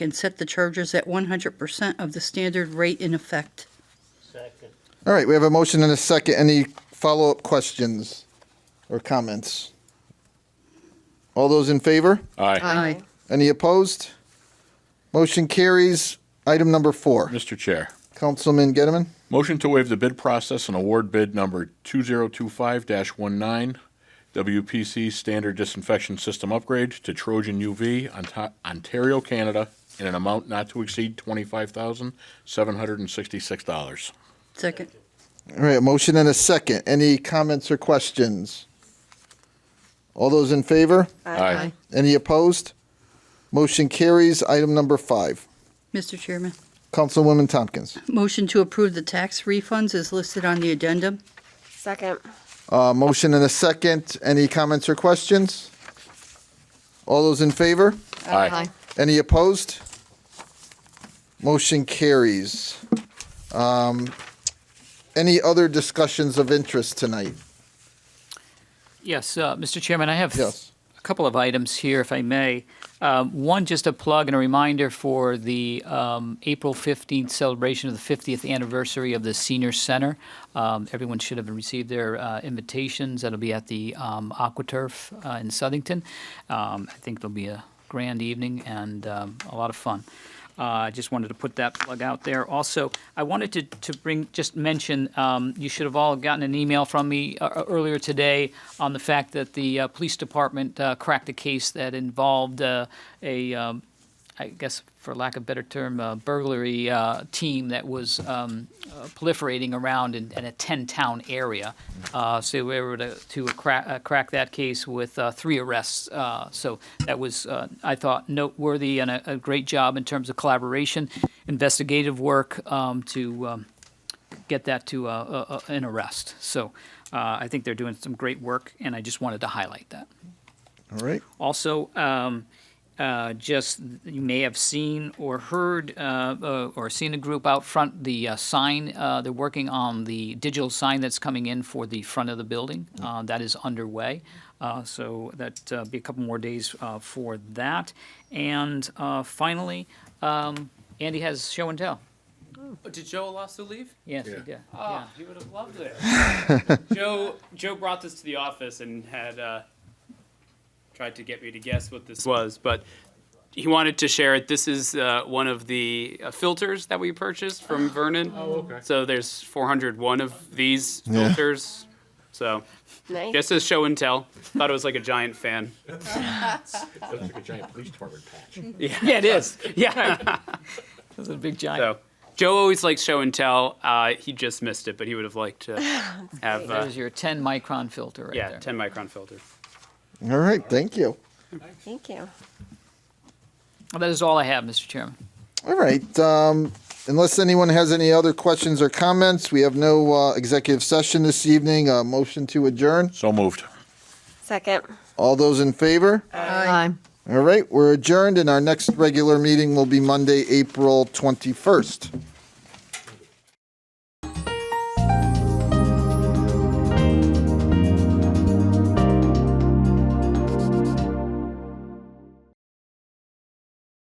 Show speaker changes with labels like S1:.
S1: and set the charges at 100% of the standard rate in effect.
S2: Second.
S3: All right, we have a motion and a second. Any follow-up questions or comments? All those in favor?
S4: Aye.
S1: Aye.
S3: Any opposed? Motion carries. Item number four.
S4: Mr. Chair,
S3: Councilman Gettleman?
S4: motion to waive the bid process and award bid number 2025-19 WPC Standard Disinfection System Upgrade to Trojan UV, Ont- Ontario, Canada, in an amount not to exceed $25,766.
S1: Second.
S3: All right, a motion and a second. Any comments or questions? All those in favor?
S4: Aye.
S3: Any opposed? Motion carries. Item number five.
S1: Mr. Chairman,
S3: Councilwoman Tompkins.
S1: motion to approve the tax refunds is listed on the addendum.
S5: Second.
S3: Uh, motion and a second. Any comments or questions? All those in favor?
S4: Aye.
S3: Any opposed? Motion carries. Um, Any other discussions of interest tonight?
S6: Yes, uh, Mr. Chairman, I have
S3: Yes.
S6: a couple of items here, if I may. Um, One, just a plug and a reminder for the um, April 15th celebration of the 50th anniversary of the Senior Center. Um, Everyone should have received their uh, invitations. That'll be at the um, AquaTurf uh, in Southington. Um, I think there'll be a grand evening and um, a lot of fun. Uh, I just wanted to put that plug out there. Also, I wanted to, to bring, just mention, um, you should have all gotten an email from me uh, uh, earlier today on the fact that the uh, police department uh, cracked a case that involved uh, a, um, I guess for lack of a better term, uh, burglary uh, team that was um, uh, proliferating around in, in a 10 town area. Uh, so we were to, to crack, uh, crack that case with uh, three arrests. Uh, so that was, uh, I thought, noteworthy and a, a great job in terms of collaboration, investigative work um, to. Um, get that to uh, uh, uh, an arrest. So uh, I think they're doing some great work, and I just wanted to highlight that.
S3: All right.
S6: Also, um, uh, just you may have seen or heard uh, uh, or seen a group out front the uh, sign. Uh, they're working on the digital sign that's coming in for the front of the building. Uh, that is underway. Uh, so that uh, be a couple more days uh, for that. And uh, finally, um, Andy has show and tell.
S7: Oh, did Joe Alasso leave?
S6: Yes, he did.
S7: Ah, he would have loved it. Joe Joe brought this to the office and had uh, tried to get me to guess what this was, but he wanted to share it. This is uh, one of the uh, filters that we purchased from Vernon. Oh, okay. So there's 401 of these filters. So
S5: Nice.
S7: just as show and tell. Thought it was like a giant fan.
S4: That's like a giant police department patch.
S7: Yeah, it is. Yeah.
S6: That's a big giant.
S7: So Joe always likes show and tell. Uh, he just missed it, but he would have liked to have uh,
S6: There's your 10 micron filter right
S7: yeah,
S6: there.
S7: 10 micron filter.
S3: All right, thank you.
S5: Thank you.
S6: That is all I have, Mr. Chairman.
S3: All right, um, unless anyone has any other questions or comments, we have no uh, executive session this evening. Uh, Motion to adjourn.
S4: So moved.
S5: Second.
S3: All those in favor?
S5: Aye.
S3: All right, we're adjourned, and our next regular meeting will be Monday, April 21st.